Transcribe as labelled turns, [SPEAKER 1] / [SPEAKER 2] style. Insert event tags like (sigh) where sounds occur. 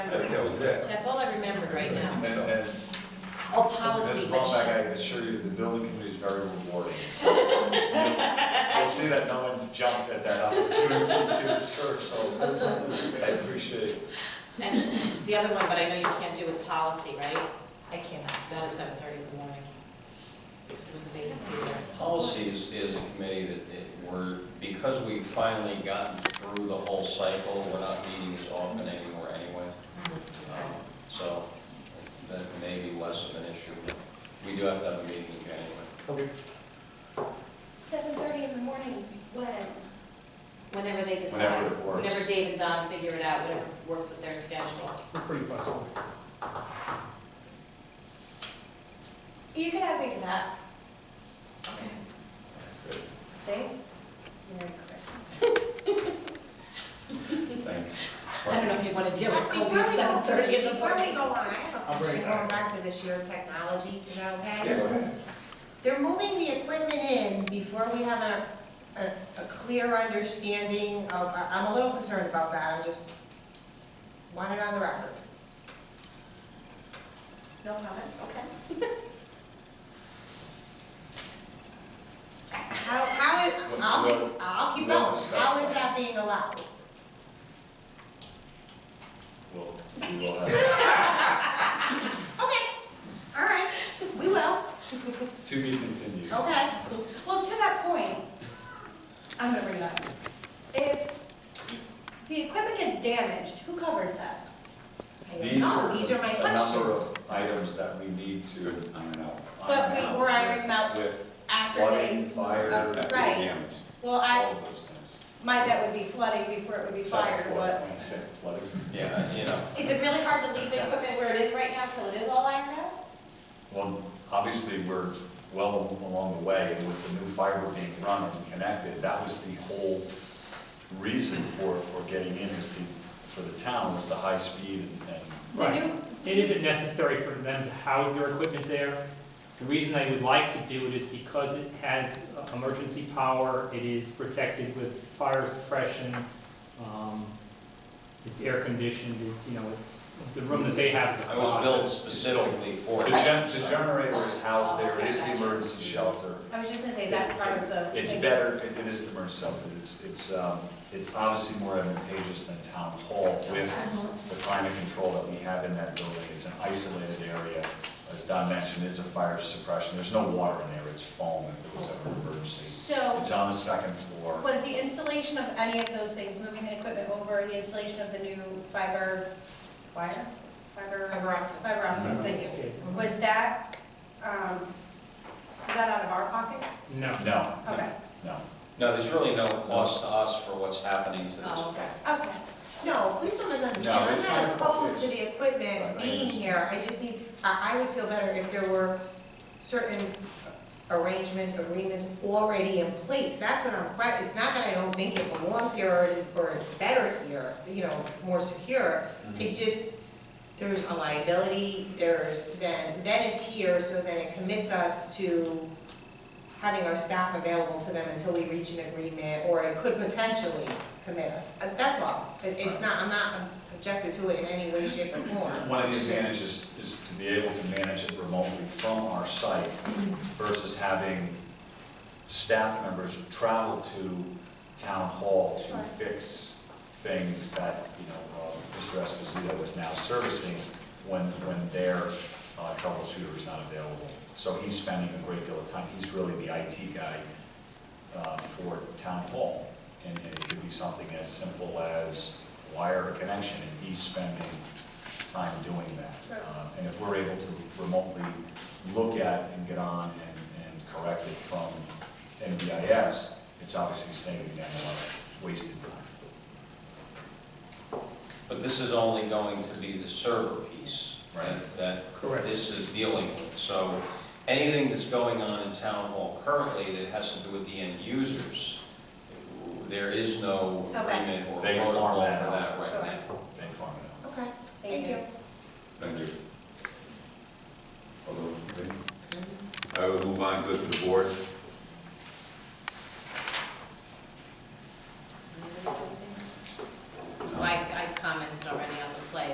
[SPEAKER 1] I think that was it.
[SPEAKER 2] That's all I remembered right now.
[SPEAKER 1] Yeah.
[SPEAKER 3] And, and
[SPEAKER 2] Oh,
[SPEAKER 3] Ms.
[SPEAKER 2] policy, but
[SPEAKER 3] Wambach,
[SPEAKER 2] she-
[SPEAKER 3] I assure you, the building committee is very
[SPEAKER 4] (laughs)
[SPEAKER 3] rewarding. So You'll see that no one jumped at that opportunity to serve, so I appreciate it.
[SPEAKER 2] and the other one, but I know you can't do is policy, right?
[SPEAKER 5] I cannot.
[SPEAKER 2] Not at seven thirty in the morning. This was a vacancy there.
[SPEAKER 6] Policy is, is a committee that, that we're, because we've finally gotten through the whole cycle, we're not meeting as often anymore anyway. Um,
[SPEAKER 2] Mm-hmm.
[SPEAKER 6] So that may be less of an issue, but we do have to have a meeting in January.
[SPEAKER 4] Seven thirty in the morning, when?
[SPEAKER 2] Whenever they decide.
[SPEAKER 3] Whenever it works.
[SPEAKER 2] Whenever Dave and Don figure it out, whatever works with their schedule.
[SPEAKER 7] We're pretty flexible.
[SPEAKER 5] You can have me to that. See? Merry Christmas.
[SPEAKER 3] Thanks.
[SPEAKER 2] I don't know if you want to deal with
[SPEAKER 5] Before
[SPEAKER 2] Kobe at
[SPEAKER 5] we go-
[SPEAKER 2] seven thirty in the
[SPEAKER 5] Before we
[SPEAKER 2] morning.
[SPEAKER 5] go on, I have a
[SPEAKER 7] I'll bring
[SPEAKER 5] question
[SPEAKER 7] it back.
[SPEAKER 5] going back to this year in technology, is that okay?
[SPEAKER 3] Yeah, go ahead.
[SPEAKER 5] They're moving the equipment in before we have a, a, a clear understanding of, I- I'm a little concerned about that, I just want it on the record.
[SPEAKER 2] No comments, okay.
[SPEAKER 5] How, how is, I'll just, I'll keep
[SPEAKER 3] We'll-
[SPEAKER 5] going,
[SPEAKER 3] we'll
[SPEAKER 5] how is
[SPEAKER 3] discuss that.
[SPEAKER 5] that being allowed?
[SPEAKER 3] We'll, we will have,
[SPEAKER 5] Okay, all right, we will,
[SPEAKER 3] to be continued.
[SPEAKER 4] Oh,
[SPEAKER 5] okay.
[SPEAKER 4] Well, to that point, I'm gonna bring that up. If the equipment gets damaged, who covers that?
[SPEAKER 5] I don't
[SPEAKER 3] These
[SPEAKER 5] know.
[SPEAKER 3] are
[SPEAKER 5] These are my
[SPEAKER 3] a number of
[SPEAKER 5] questions.
[SPEAKER 3] items that we need to iron out.
[SPEAKER 4] But we-
[SPEAKER 3] iron out
[SPEAKER 4] we're ironing out
[SPEAKER 3] With
[SPEAKER 4] after
[SPEAKER 3] flooding,
[SPEAKER 4] they- uh,
[SPEAKER 3] fire,
[SPEAKER 4] Right.
[SPEAKER 3] damage,
[SPEAKER 4] Well,
[SPEAKER 3] all
[SPEAKER 4] I,
[SPEAKER 3] of those things.
[SPEAKER 4] my bet would be flooding before it would be
[SPEAKER 3] Except
[SPEAKER 4] fire,
[SPEAKER 3] flooding,
[SPEAKER 4] but
[SPEAKER 3] when I said flooding.
[SPEAKER 6] Yeah, you know,
[SPEAKER 2] Is it really hard to leave the equipment where it is right now till it is all ironed out?
[SPEAKER 3] Well, obviously, we're well along the way, and with the new fiber being run and connected, that was the whole reason for, for getting in, is the, for the town, was the high speed and, and
[SPEAKER 4] the
[SPEAKER 7] Right.
[SPEAKER 4] new,
[SPEAKER 8] It isn't necessary for them to house their equipment there. The reason they would like to do it is because it has uh, emergency power, it is protected with fire suppression, um, it's air conditioned, it's, you know, it's, the room that they have is a
[SPEAKER 6] I was built
[SPEAKER 8] closet.
[SPEAKER 6] specifically for
[SPEAKER 3] the
[SPEAKER 6] it.
[SPEAKER 3] gen-
[SPEAKER 6] so-
[SPEAKER 3] the generator is housed there, it is the emergency shelter.
[SPEAKER 4] I was just gonna say, is that part of the?
[SPEAKER 3] It's
[SPEAKER 4] thing?
[SPEAKER 3] better, it it is the emergency shelter, it's, it's, um, it's obviously more advantageous than town hall with the climate control that we have in that building. It's an isolated area, as Don mentioned, it's a fire suppression, there's no water in there, it's foam if there was ever an emergency.
[SPEAKER 4] So,
[SPEAKER 3] It's on the second floor.
[SPEAKER 4] was the installation of any of those things, moving the equipment over, the installation of the new fiber wire? Fiber,
[SPEAKER 5] Fiber optic.
[SPEAKER 4] fiber optics, thank you.
[SPEAKER 3] Mm-hmm.
[SPEAKER 4] Was that, um, was that out of our pocket?
[SPEAKER 8] No.
[SPEAKER 3] No,
[SPEAKER 4] Okay,
[SPEAKER 3] no.
[SPEAKER 6] No, there's really no cost to us for what's happening to this.
[SPEAKER 2] Oh, okay.
[SPEAKER 4] okay.
[SPEAKER 5] No, please don't misunderstand,
[SPEAKER 3] No,
[SPEAKER 5] I'm
[SPEAKER 3] it's
[SPEAKER 5] not
[SPEAKER 3] not
[SPEAKER 5] opposed to
[SPEAKER 3] opposed.
[SPEAKER 5] the
[SPEAKER 3] Right,
[SPEAKER 5] equipment
[SPEAKER 3] I
[SPEAKER 5] being
[SPEAKER 3] understand.
[SPEAKER 5] here, I just need, I, I would feel better if there were certain arrangements, agreements already in place, that's what I'm, quite- it's not that I don't think it belongs here, or it's, or it's better here, you know, more secure,
[SPEAKER 3] Mm-hmm.
[SPEAKER 5] it just, there's a liability, there's, then, then it's here, so then it commits us to having our staff available to them until we reach an agreement, or it could potentially commit us. Uh, That's all. It- It's not, I'm not objected to it in any way, shape, or form.
[SPEAKER 3] One of the
[SPEAKER 5] It's just-
[SPEAKER 3] advantages is to be able to manage it remotely from our site versus having staff members travel to town hall to fix things that, you know, uh, Mr. Esposito is now servicing when, when their uh, troubleshooter is not available. So he's spending a great deal of time, he's really the IT guy uh, for town hall. And and it could be something as simple as wire a connection, and he's spending time doing that. Um, And if we're able to remotely look at and get on and, and correct it from NBIS, it's obviously saving them a lot of wasted time.
[SPEAKER 6] But this is only going to be the server piece
[SPEAKER 3] Right.
[SPEAKER 6] that
[SPEAKER 8] Correct.
[SPEAKER 6] this is dealing with. So anything that's going on in town hall currently that has to do with the end users, there is no
[SPEAKER 4] Okay.
[SPEAKER 6] agreement or
[SPEAKER 3] They farm
[SPEAKER 6] protocol for
[SPEAKER 3] that out.
[SPEAKER 6] that right
[SPEAKER 4] Sure.
[SPEAKER 6] now.
[SPEAKER 3] They farm it out.
[SPEAKER 5] Okay, thank you.
[SPEAKER 1] Thank you. All those in favor? I will move on, go to the board.
[SPEAKER 2] Um,